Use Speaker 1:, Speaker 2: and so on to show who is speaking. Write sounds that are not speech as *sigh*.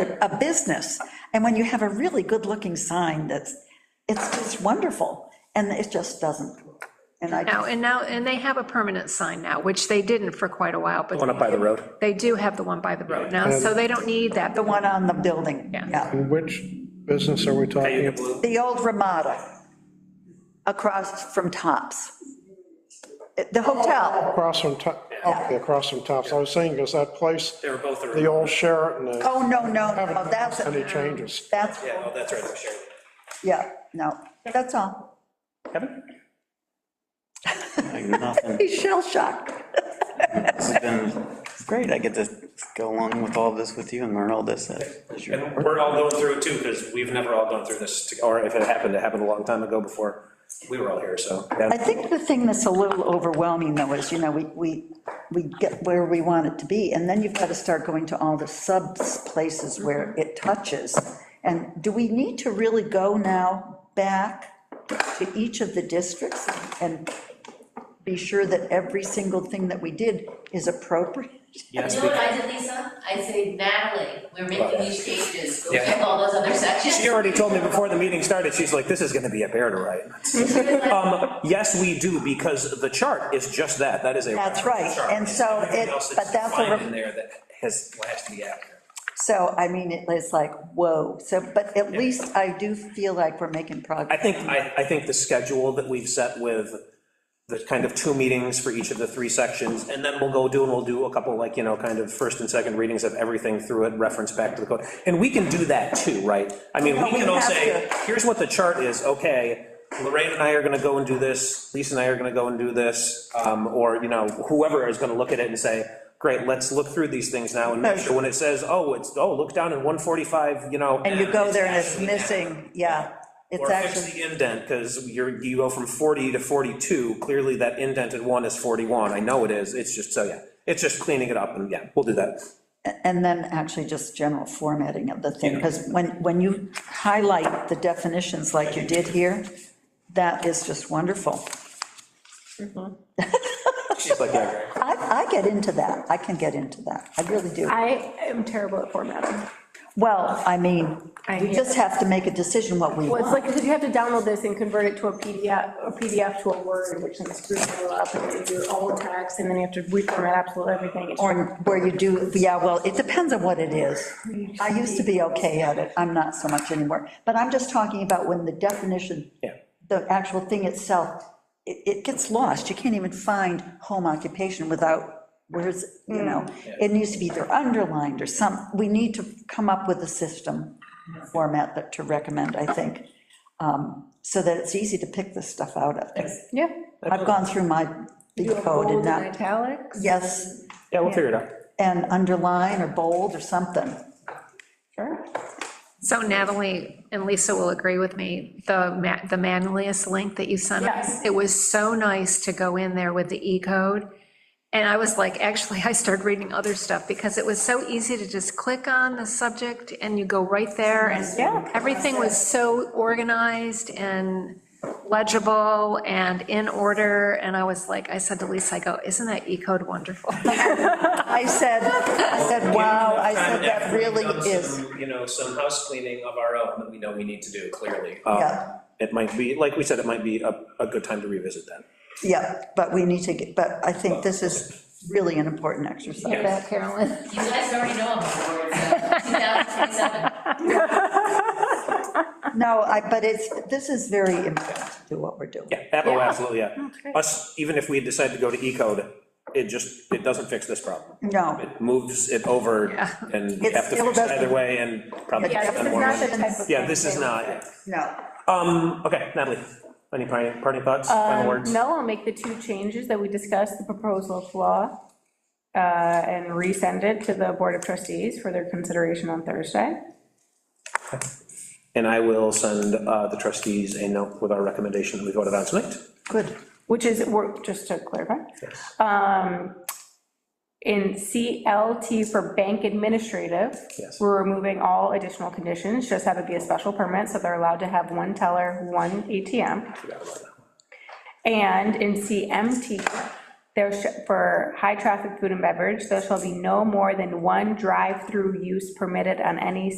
Speaker 1: a business. And when you have a really good-looking sign that's, it's just wonderful, and it just doesn't. And I,
Speaker 2: Now, and now, and they have a permanent sign now, which they didn't for quite a while, but.
Speaker 3: One up by the road.
Speaker 2: They do have the one by the road now, so they don't need that.
Speaker 1: the one on the building,
Speaker 2: Yeah.
Speaker 1: yeah,
Speaker 4: And which business are we talking? about?
Speaker 1: the old Ramada, across from Tops. The hotel,
Speaker 4: Across from, To- okay, across from Tops. I was saying, is that place,
Speaker 3: They were both
Speaker 4: the
Speaker 3: the.
Speaker 4: old Sheraton, uh,
Speaker 1: oh, no, no,
Speaker 4: haven't
Speaker 1: no, that's,
Speaker 4: noticed any changes.
Speaker 1: that's,
Speaker 3: Yeah, oh, that's right, I'm sure.
Speaker 1: yeah, no, that's all.
Speaker 3: Kevin?
Speaker 5: Like, nothing.
Speaker 1: He's shell shocked.
Speaker 5: This has been it's great. I get to go along with all this with you and learn all this. as you're-
Speaker 3: And we're all going through it too, because we've never all gone through this, to- or if it happened, it happened a long time ago before we were all here, so.
Speaker 1: I think the thing that's a little overwhelming, though, is, you know, we, we, we get where we want it to be, and then you've got to start going to all the sub places where
Speaker 3: Mm-hmm.
Speaker 1: it touches. And do we need to really go now back to each of the districts and be sure that every single thing that we did is appropriate?
Speaker 3: Yes,
Speaker 6: You know what I did, Lisa? I say, Natalie, we're making these changes, go
Speaker 3: Yeah.
Speaker 6: check all those other sections.
Speaker 3: She already told me before the meeting started, she's like, this is gonna be a bear to write.
Speaker 1: *laughs*
Speaker 3: Um, yes, we do, because the chart is just that, that is a.
Speaker 1: That's right,
Speaker 3: chart.
Speaker 1: and so
Speaker 3: Everything
Speaker 1: it-
Speaker 3: else
Speaker 1: but that's a
Speaker 3: defined
Speaker 1: ref-
Speaker 3: In there that has, has to be accurate.
Speaker 1: So, I mean, it- it's like, whoa, so, but at least I do feel like we're making
Speaker 3: I
Speaker 1: progress.
Speaker 3: think, I, I think the schedule that we've set with the kind of two meetings for each of the three sections, and then we'll go do, and we'll do a couple, like, you know, kind of first and second readings of everything through it, reference back to the code. And we can do that too, right? I mean,
Speaker 1: No,
Speaker 3: we can
Speaker 1: we
Speaker 3: all
Speaker 1: have
Speaker 3: say,
Speaker 1: to.
Speaker 3: here's what the chart is, okay, Lorraine and I are gonna go and do this, Lisa and I are gonna go and do this, um, or, you know, whoever is gonna look at it and say, great, let's look through these things now, and make sure when it says, oh, it's, oh, look down in 145, you know.
Speaker 1: And you go there and it's missing, yeah, it's
Speaker 3: Or
Speaker 1: actually.
Speaker 3: fix the indent, because you're, you go from 40 to 42, clearly that indented one is 41, I know it is, it's just, so, yeah, it's just cleaning it up, and yeah, we'll do that.
Speaker 1: And then actually just general formatting of the thing, because when, when you highlight the definitions like you did here, that is just wonderful.
Speaker 3: She's like, yeah, right.
Speaker 1: I, I get into that, I can get into that, I really do.
Speaker 7: I am terrible at formatting.
Speaker 1: Well, I mean,
Speaker 7: I
Speaker 1: we
Speaker 7: hear-
Speaker 1: just have to make a decision what we
Speaker 7: Well, it's like,
Speaker 1: want.
Speaker 7: because you have to download this and convert it to a PDF, a PDF to a Word, which then screws it all up, and you do all the text, and then you have to reformat absolutely everything. It's-
Speaker 1: Or where you do, yeah, well, it depends on what it is. I used to be okay at it, I'm not so much anymore, but I'm just talking about when the definition,
Speaker 3: Yeah.
Speaker 1: the actual thing itself, it, it gets lost, you can't even find home occupation without, where's, you know, it needs to be either underlined or some, we need to come up with a system format that to recommend, I think, um, so that it's easy to pick this stuff out of.
Speaker 7: Yeah.
Speaker 1: I've gone through my big
Speaker 7: You have
Speaker 1: code
Speaker 7: bold
Speaker 1: and
Speaker 7: and
Speaker 1: not,
Speaker 7: italics?
Speaker 1: yes,
Speaker 3: yeah, we'll figure it out.
Speaker 1: and underline or bold or something.
Speaker 7: Sure.
Speaker 2: So Natalie and Lisa will agree with me, the ma, the manliest link that you sent us,
Speaker 7: Yes.
Speaker 2: it was so nice to go in there with the E code. And I was like, actually, I started reading other stuff because it was so easy to just click on the subject and you go right there and
Speaker 7: Yeah.
Speaker 2: everything was so organized and legible and in order. And I was like, I said to Lisa, I go, isn't that E code wonderful? *laughs*
Speaker 1: I said, I said, wow, I said,
Speaker 3: And
Speaker 1: that
Speaker 3: after we've
Speaker 1: really
Speaker 3: done
Speaker 1: is,
Speaker 3: some, You know, some house cleaning of our own that we know we need to do, clearly. Um,
Speaker 1: Yeah.
Speaker 3: It might be, like we said, it might be a, a good time to revisit that.
Speaker 1: yeah, but we need to, get but I think this is really an important exercise.
Speaker 2: About Carolyn.
Speaker 6: You guys already know I'm on board, so
Speaker 3: *laughs*
Speaker 6: 2027.
Speaker 1: No, I, but it's, this is very important to what we're doing.
Speaker 3: Yeah, Apple, absolutely, yeah. Us, even if we decide to go to E code, it just, it doesn't fix this problem.
Speaker 1: No,
Speaker 3: It moves it over, and we
Speaker 1: It
Speaker 3: have to
Speaker 1: still
Speaker 3: fix it either
Speaker 1: doesn't-
Speaker 3: way, and probably.
Speaker 7: Yeah, this
Speaker 3: spend
Speaker 7: is
Speaker 3: more
Speaker 7: not
Speaker 3: money.
Speaker 7: the type of.
Speaker 3: Yeah,
Speaker 7: thing
Speaker 3: this is
Speaker 7: they-
Speaker 3: not, yeah.
Speaker 1: no,
Speaker 3: Um, okay, Natalie, any parting, parting thoughts, final words?
Speaker 7: Uh, Um, No, I'll make the two changes that we discussed, the proposal of law, uh, and resend it to the Board of Trustees for their consideration on Thursday.
Speaker 3: And I will send uh, the trustees a note with our recommendation that we voted on tonight.
Speaker 1: good.
Speaker 7: which is, we're- just to clarify. Um, In CLT for bank administrative.
Speaker 3: Yes.
Speaker 7: We're removing all additional conditions, just have it be a special permit, so they're allowed to have one teller, one ATM. And in CMT, there, sh- for high-traffic food and beverage, there shall be no more than one drive-through use permitted on any